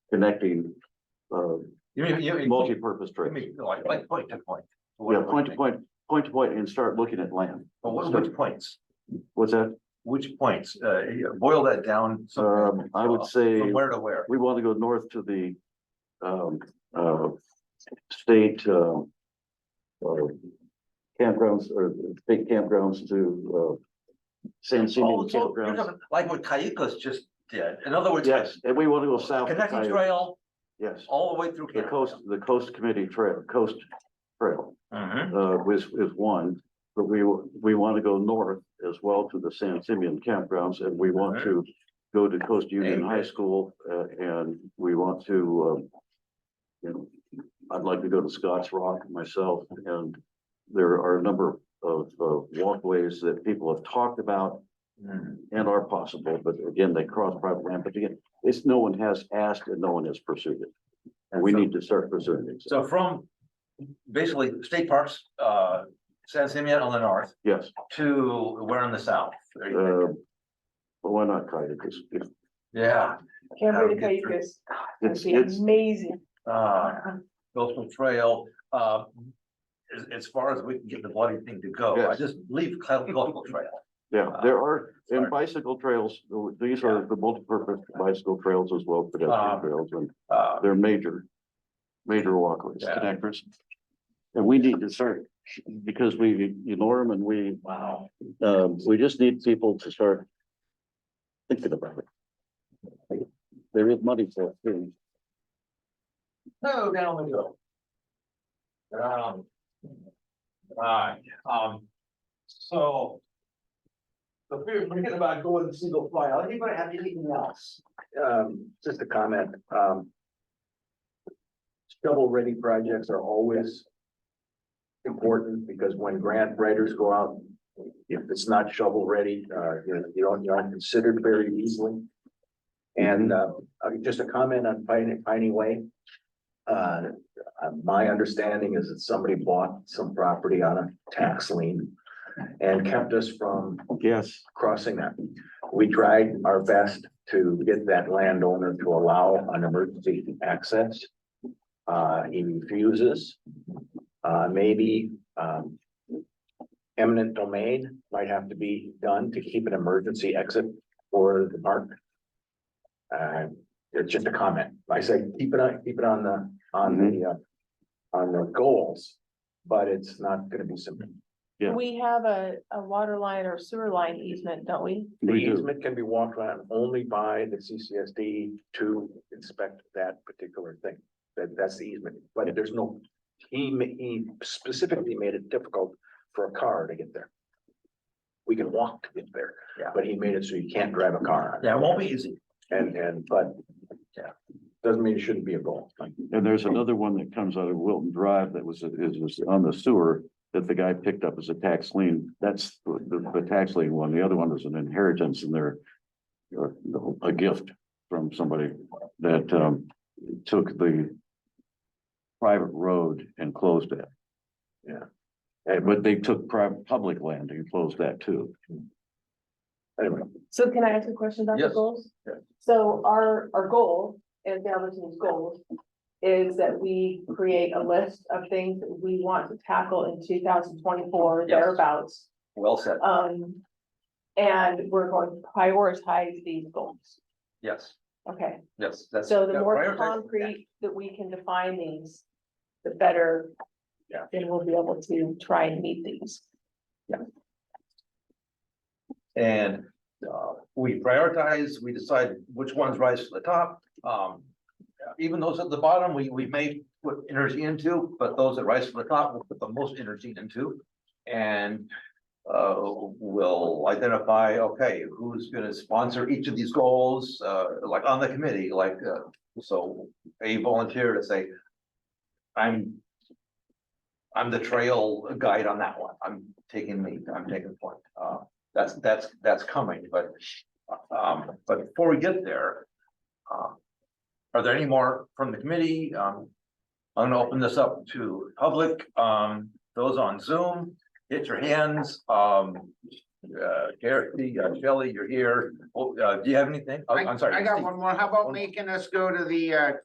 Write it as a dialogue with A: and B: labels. A: connecting, uh,
B: You mean, you mean, you
A: multi-purpose trails.
B: mean, like, like point to point.
A: Yeah, point to point, point to point and start looking at land.
B: But what, which points,
A: What's that?
B: which points, uh, yeah, boil that down. some-
A: Um, I would say
B: From where to where?
A: we want to go north to the, um, uh, state, uh, uh, campgrounds or state campgrounds to, uh, San Simeon
B: Oh, so you're
A: campgrounds.
B: talking Like what Cayucos just did, in other words.
A: Yes, and we want to go south. to
B: Connecting
A: Coyote.
B: trail
A: Yes,
B: all the way through.
A: the coast, the coast committee trail, coast trail,
B: hmm
A: uh, was, is one. But we, we want to go north as well to the San Simeon campgrounds and we want to go to Coast Union High School, uh, and we want to, um, you know, I'd like to go to Scotts Rock myself, and there are a number of, uh walkways that people have talked about and are possible, but again, they cross private land, but again, it's, no one has asked and no one has pursued it. And we
B: So-
A: need to start pursuing it.
B: So from basically state parks, uh, San Simeon on the north
A: Yes,
B: to where in the south? There you go.
A: uh, but why not Coyote? It's, it's,
B: Yeah,
C: Can't
B: How to
C: wait to
B: get
C: tell you
B: through.
C: this. That'd
A: it's,
C: be
A: it's,
C: amazing.
B: uh, Coastal Trail, uh, as, as far as we can get the bloody thing to go, I
A: Yes.
B: just leave Cal- Coastal Trail.
A: yeah, there are,
B: Sorry.
A: and bicycle trails, th- these are the multipurpose bicycle trails as well,
B: Uh,
A: pedestrian trails, and
B: Uh,
A: they're major, major walkways,
B: Yeah.
A: connectors. And we need to start, because we ignore them and we,
B: wow,
A: um, we just need people to start thinking about it. There is money for it, too.
B: no, down we go. Um. Alright, um, so.
D: So we're thinking about going to single file. Anybody have anything else? Um, just a comment, um. Shovel-ready projects are always important because when grant writers go out, if it's not shovel-ready, uh, you know, you don't, you aren't considered very easily. And, uh, uh, just a comment on Piney, Piney Way. Uh, uh, my understanding is that somebody bought some property on a tax lien and kept us from
A: Yes,
D: crossing that. We tried our best to get that landowner to allow an emergency access. Uh, he refuses. Uh, maybe, um. Eminent domain might have to be done to keep an emergency exit for the park. Uh, it's just a comment. I say, keep it on, keep it on the, on the,
B: Mm-hmm.
D: uh, on the goals. But it's not gonna be simple.
A: Yeah.
C: We have a, a water line or sewer line easement, don't we?
D: The
A: we do.
D: easement can be walked on only by the CCSD to inspect that particular thing. That, that's the easement, but there's no, he, ma- he specifically made it difficult for a car to get there. We can walk to get there,
B: Yeah.
D: but he made it so you can't drive a car on it.
B: Yeah, it won't be easy.
D: and, and, but.
B: Yeah.
D: Doesn't mean it shouldn't be a goal.
A: And there's another one that comes out of Wilton Drive that was, is, was on the sewer that the guy picked up as a tax lien. That's the, the- the tax lien one. The other one was an inheritance and they're or a gift from somebody that, um, took the private road and closed it.
D: Yeah.
A: Uh, but they took private, public land and closed that too.
D: Anyway,
C: So can I ask a question about the
B: Yes.
C: goals?
B: Yeah.
C: So our, our goal, and the other team's goals, is that we create a list of things that we want to tackle in two thousand twenty-four
B: Yes.
C: thereabouts.
B: Well said,
C: Um, and we're going to prioritize these goals.
B: yes,
C: Okay,
B: yes, that's.
C: so the
B: yeah,
C: more
B: prioritize-
C: concrete that we can define these, the better.
D: Yeah.
C: Then we'll be able to try and meet these.
B: And uh, we prioritize, we decide which ones rise to the top. Um, even those at the bottom, we, we may put energy into, but those that rise to the top, we'll put the most energy into. And uh, we'll identify, okay, who's gonna sponsor each of these goals, uh, like on the committee, like, uh, so a volunteer to say, I'm I'm the trail guide on that one. I'm taking lead, I'm taking point. Uh, that's, that's, that's coming, but, um, but before we get there, um, are there any more from the committee? Um, I'm gonna open this up to public, um, those on Zoom, get your hands, um, uh, Gary, uh, Shelley, you're here. Oh, uh, do you have anything? Oh, I'm sorry.
E: I got one more. How about
B: One-
E: making us go to the uh